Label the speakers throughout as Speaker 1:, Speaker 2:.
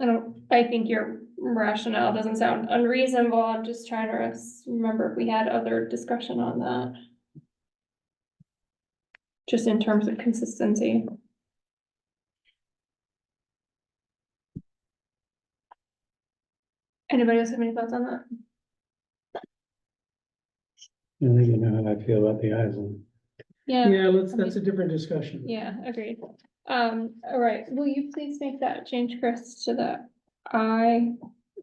Speaker 1: I don't, I think your rationale doesn't sound unreasonable, I'm just trying to res- remember if we had other discussion on that. Just in terms of consistency. Anybody else have any thoughts on that?
Speaker 2: I think you know how I feel about the island.
Speaker 1: Yeah,
Speaker 3: Yeah, let's, that's a different discussion.
Speaker 1: yeah, agreed. Um, all right, will you please make that change, Chris, to the I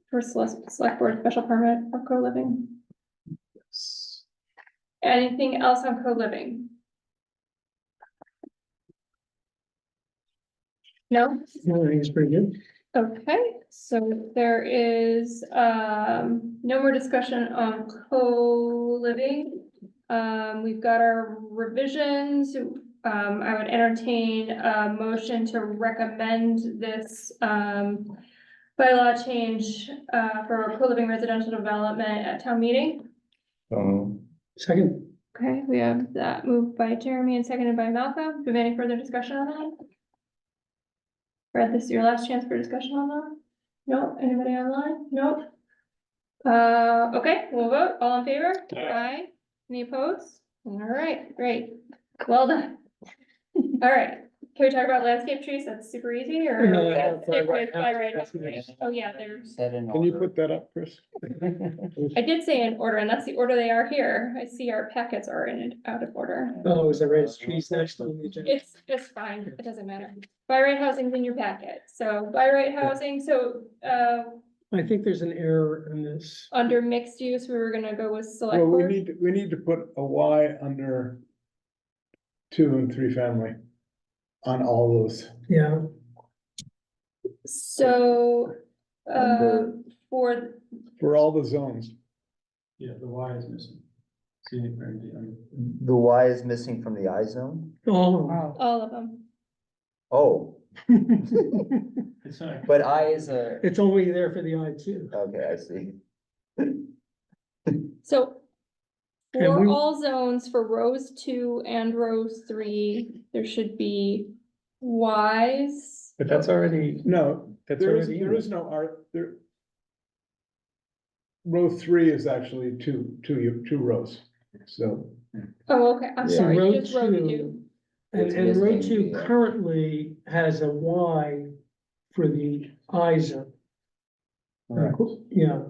Speaker 1: for select, select board special permit for co-living? Anything else on co-living? No,
Speaker 3: Yeah, I think it's pretty good.
Speaker 1: okay, so there is um no more discussion on co-living. Um, we've got our revisions, um, I would entertain a motion to recommend this um. Bylaw change uh for co-living residential development at town meeting.
Speaker 4: Um,
Speaker 3: Second,
Speaker 1: Okay, we have that moved by Jeremy and seconded by Malcolm. Do we have any further discussion on that? Brad, this is your last chance for discussion on that? No, anybody online? Nope. Uh, okay, we'll vote. All in favor? Aye. Any opposed? All right, great. Well done. All right, can we talk about landscape trees? That's super easy or?
Speaker 3: No, no, no, by
Speaker 1: Stick with
Speaker 3: right
Speaker 1: by
Speaker 3: now.
Speaker 1: right
Speaker 3: That's
Speaker 1: now?
Speaker 3: nice.
Speaker 1: Oh, yeah, there's,
Speaker 4: set in
Speaker 2: Can you
Speaker 4: order.
Speaker 2: put that up, Chris?
Speaker 1: I did say in order and that's the order they are here. I see our packets are in, out of order.
Speaker 3: oh, is that right? It's trees next on the agenda.
Speaker 1: It's, it's fine, it doesn't matter. By right housing's in your packet, so by right housing, so, uh,
Speaker 3: I think there's an error in this.
Speaker 1: under mixed use, we were gonna go with select
Speaker 2: Well, we
Speaker 1: board.
Speaker 2: need, we need to put a Y under two and three family on all those.
Speaker 3: Yeah,
Speaker 1: So, uh,
Speaker 4: Under-
Speaker 1: for,
Speaker 2: For all the zones,
Speaker 5: Yeah, the Y is missing. Scenic Road, um,
Speaker 4: The Y is missing from the I zone?
Speaker 3: oh,
Speaker 1: all of them,
Speaker 4: Oh,
Speaker 5: It's not.
Speaker 4: but I is a,
Speaker 3: it's only there for the eye too.
Speaker 4: okay, I see.
Speaker 1: so.
Speaker 3: And
Speaker 1: For
Speaker 3: we-
Speaker 1: all zones, for rows two and rows three, there should be Ys.
Speaker 5: But that's already,
Speaker 2: no,
Speaker 5: that's
Speaker 2: there is,
Speaker 5: already.
Speaker 2: there is no art, there. Row three is actually two, two, two rows, so.
Speaker 1: Oh, okay, I'm
Speaker 4: Yeah.
Speaker 1: sorry,
Speaker 3: Row
Speaker 1: just row
Speaker 3: two.
Speaker 1: two,
Speaker 3: And,
Speaker 4: It's
Speaker 3: and row two
Speaker 4: missing the-
Speaker 3: currently has a Y for the eye zone. Yeah.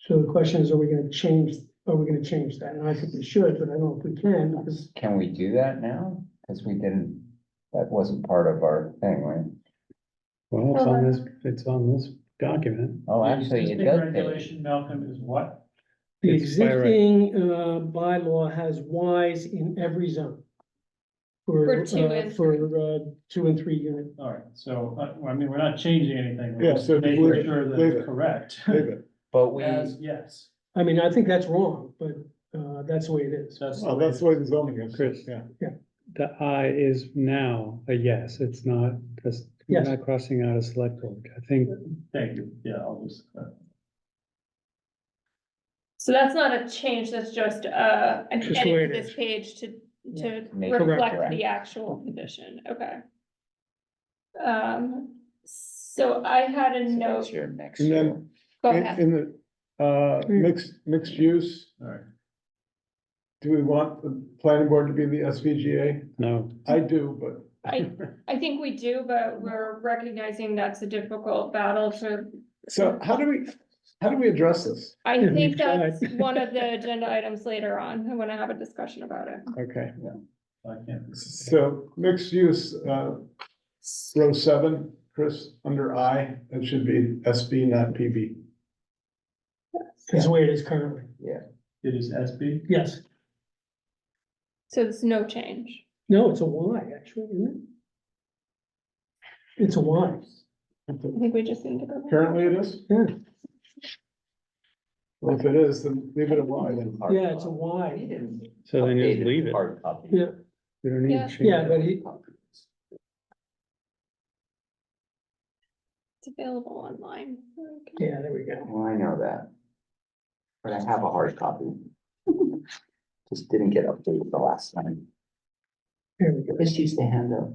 Speaker 3: So the question is, are we gonna change, are we gonna change that? And I think we should, but I don't know if we can, because
Speaker 4: Can we do that now? Cause we didn't, that wasn't part of our thing, right?
Speaker 2: Well,
Speaker 1: it's on
Speaker 2: this, it's on this document.
Speaker 4: Oh, actually, it
Speaker 5: Existing
Speaker 4: does.
Speaker 5: Regulation, Malcolm, is what?
Speaker 3: the
Speaker 2: It's by right.
Speaker 3: existing, uh, bylaw has Ys in every zone.
Speaker 1: For
Speaker 3: For,
Speaker 1: two
Speaker 3: uh,
Speaker 1: and
Speaker 3: for, uh, two and three unit.
Speaker 5: All right, so, uh, I mean, we're not changing anything. We're
Speaker 2: Yeah,
Speaker 5: just
Speaker 2: so
Speaker 5: Making
Speaker 2: leave it,
Speaker 5: sure that
Speaker 2: leave
Speaker 5: it's
Speaker 2: it.
Speaker 5: correct.
Speaker 2: Leave it.
Speaker 4: But we,
Speaker 5: As, yes.
Speaker 3: I mean, I think that's wrong, but, uh, that's the way it is.
Speaker 5: So that's the
Speaker 2: Well,
Speaker 5: way
Speaker 2: that's the way the zoning is.
Speaker 6: Chris.
Speaker 2: Yeah,
Speaker 6: The I is now a yes, it's not, because we're
Speaker 3: Yes.
Speaker 6: not crossing out a select board. I think
Speaker 5: Thank you, yeah, I'll just. uh,
Speaker 1: so that's not a change, that's just, uh, an
Speaker 3: Just
Speaker 1: edit
Speaker 3: word
Speaker 1: to this page to
Speaker 3: Yeah.
Speaker 1: to
Speaker 4: Make it
Speaker 1: reflect
Speaker 4: correct.
Speaker 1: the actual condition, okay. Um, so I had a
Speaker 4: so that's
Speaker 1: note,
Speaker 4: your next
Speaker 2: And then-
Speaker 4: year.
Speaker 1: go
Speaker 2: in,
Speaker 1: ahead,
Speaker 2: in the, uh, mixed, mixed use,
Speaker 5: All right,
Speaker 2: do we want the planning board to be the SVGA?
Speaker 6: no,
Speaker 2: I do, but
Speaker 1: I, I think we do, but we're recognizing that's a difficult battle to.
Speaker 2: So how do we, how do we address this?
Speaker 1: I
Speaker 3: Yeah, we
Speaker 1: think that's
Speaker 3: tried.
Speaker 1: one of the agenda items later on, I wanna have a discussion about it.
Speaker 2: Okay,
Speaker 5: I can't.
Speaker 2: so mixed use, uh, row seven, Chris, under I, that should be SB, not PB.
Speaker 3: That's the way it is currently.
Speaker 5: It is SB?
Speaker 3: Yes.
Speaker 1: So it's no change,
Speaker 3: No, it's a Y, actually, isn't it? It's a Y.
Speaker 1: I think we just need to go.
Speaker 2: Currently it is?
Speaker 3: Yeah,
Speaker 2: Well, if it is, then leave it alone then.
Speaker 4: Hard
Speaker 3: yeah, it's a
Speaker 4: copy. We
Speaker 3: Y.
Speaker 4: didn't
Speaker 6: so then
Speaker 4: update
Speaker 6: just leave it.
Speaker 4: Hard copy.
Speaker 3: Yeah,
Speaker 6: We don't need
Speaker 1: Yeah.
Speaker 6: to change.
Speaker 3: yeah,
Speaker 6: it.
Speaker 3: but he,
Speaker 1: It's available online. Okay.
Speaker 3: yeah, there we go.
Speaker 4: Well, I know that. But I have a hard copy. Just didn't get updated the last time.
Speaker 3: There we go.
Speaker 4: This used to hand out